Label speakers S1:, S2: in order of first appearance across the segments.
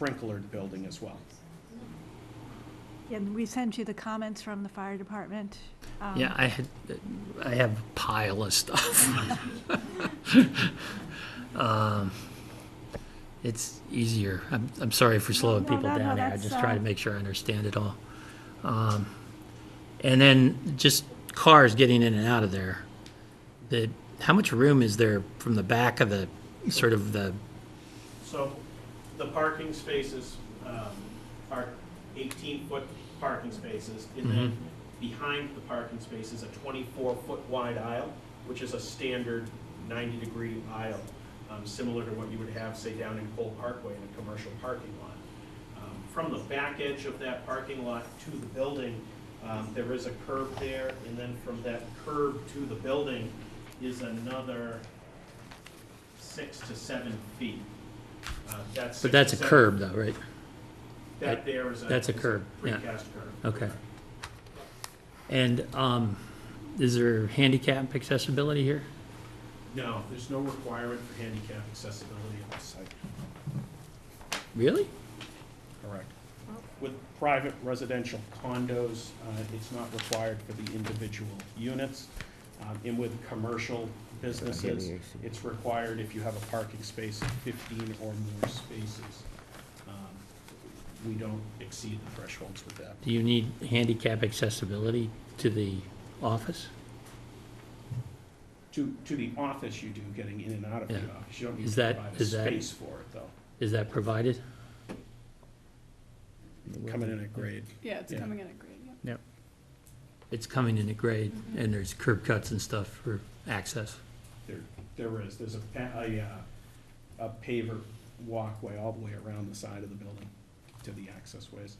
S1: sprinklered building as well.
S2: And we sent you the comments from the fire department. um,
S3: Yeah, I had, I have a pile of stuff. Um, It's easier. I'm, I'm sorry for slowing
S2: no,
S3: people
S2: no, no,
S3: down there. I
S2: that's,
S3: just try to
S2: uh,
S3: make sure I understand it all. Um, And then just cars getting in and out of there. The, how much room is there from the back of the, sort of the,
S4: So the parking spaces um, are 18-foot parking spaces, and then behind the parking space is a 24-foot wide aisle, which is a standard 90-degree aisle, um, similar to what you would have, say, down in Cole Parkway in a commercial parking lot. Um, From the back edge of that parking lot to the building, um, there is a curb there, and then from that curb to the building is another six to seven feet. Uh, That's.
S3: but that's a
S4: six to seven-
S3: curb though, right?
S4: That there is a.
S3: That's a
S4: is
S3: curb, yeah.
S4: Precast curb.
S3: Okay. And um, is there handicap accessibility here?
S4: No, there's no requirement for handicap accessibility on the site.
S3: Really?
S1: Correct. With private residential condos, uh, it's not required for the individual units. Um, And with commercial businesses, it's required if you have a parking space of 15 or more spaces. Um, We don't exceed the thresholds with that.
S3: Do you need handicap accessibility to the office?
S1: To, to the office you do, getting in and out of the
S3: Yeah.
S1: office. You don't need
S3: Is
S1: to
S3: that-
S1: provide a
S3: is that-
S1: space for it, though.
S3: Is that provided?
S1: Coming in at grade.
S5: Yeah, it's
S1: Yeah.
S5: coming in at grade, yeah.
S3: It's coming in at grade, and there's curb cuts and stuff for access.
S1: There, there is, there's a, pa- a, uh, a paver walkway all the way around the side of the building to the access ways.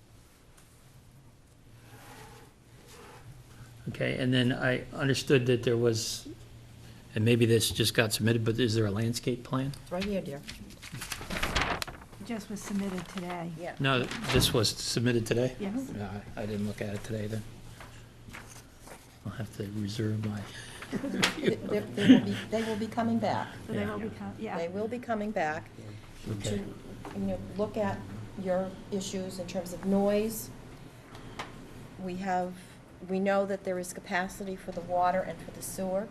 S3: Okay, and then I understood that there was, and maybe this just got submitted, but is there a landscape plan?
S6: It's right here, dear.
S2: it Just was submitted today.
S6: Yeah.
S3: No, this was submitted today?
S2: Yes.
S3: No, I- I didn't look at it today then. I'll have to reserve my,
S6: They they will be, they will be coming back.
S2: So they
S3: Yeah.
S2: will become,
S6: They
S2: yeah,
S6: will be coming back to,
S3: okay.
S6: you know, look at your issues in terms of noise. We have, we know that there is capacity for the water and for the sewer.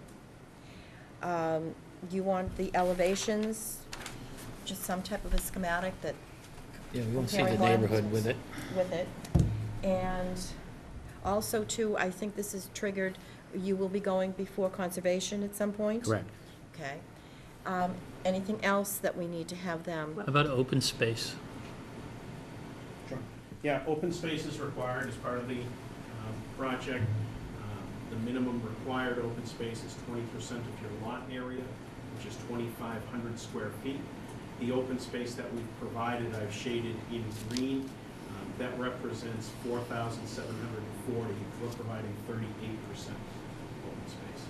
S6: Um, You want the elevations, just some type of a schematic that
S3: Yeah, we want to see the
S6: comparing one
S3: neighborhood with it.
S6: With it. And also too, I think this is triggered, you will be going before conservation at some point? Okay. Um, Anything else that we need to have them?
S3: How about open space?
S1: Sure. Yeah,
S4: Open space is required as part of the um, project. Um, The minimum required open space is twenty percent of your lot area, which is twenty-five hundred square feet. The open space that we've provided, I've shaded in green, um, that represents four thousand seven hundred and forty. We're providing thirty-eight percent open space.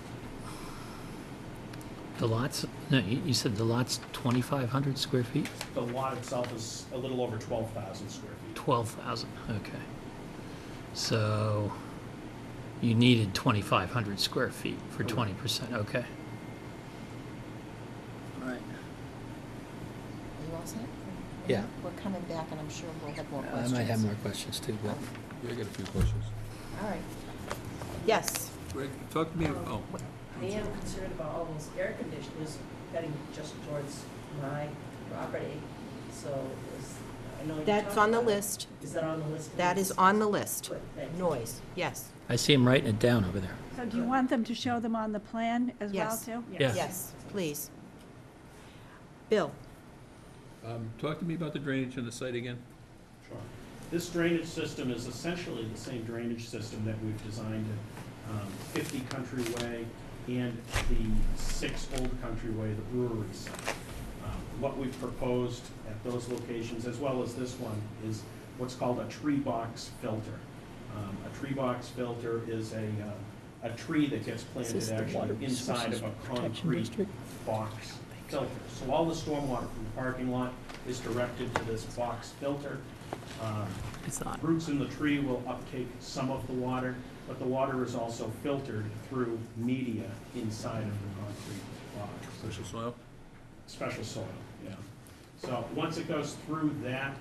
S3: The lots, no, you you said the lot's 2,500 square feet?
S1: the lot itself is a little over twelve thousand square feet.
S3: Twelve thousand, okay. So you needed twenty-five hundred square feet for twenty percent, okay. All right.
S6: Are you all set?
S3: Yeah.
S6: We're coming back, and I'm sure we'll have more
S3: I
S6: questions.
S3: might have more questions too, but
S7: Yeah, I got a few questions.
S6: All right. Yes.
S7: Greg, talk to me, oh,
S8: I am concerned about all those air conditioners heading just towards my property, so is, I know you're
S6: That's
S8: talking
S6: on the
S8: about it.
S6: list.
S8: Is that on the list?
S6: That is on the list.
S8: Good, thank you.
S6: Noise, yes.
S3: I see him writing it down over there.
S2: so do you want them to show them on the plan as well,
S6: Yes.
S2: too?
S3: Yeah.
S6: Yes, please. Bill?
S7: um, talk to me about the drainage on the site again.
S1: Sure. This drainage system is essentially the same drainage system that we've designed at um, fifty Country Way and the six Old Country Way, the brewery site. Um, What we've proposed at those locations, as well as this one, is what's called a tree box filter. Um, A tree box filter is a, uh, a tree that gets
S3: Is this
S1: planted
S3: the Water
S1: actually inside
S3: Resources
S1: of a
S3: Protection
S1: concrete
S3: District?
S1: box filter. So all the stormwater from the parking lot is directed to this box filter. Um,
S3: It's not.
S1: Roots in the tree will uptake some of the water, but the water is also filtered through media inside of the concrete box,
S7: Special soil?
S1: special soil, yeah. So once it goes through that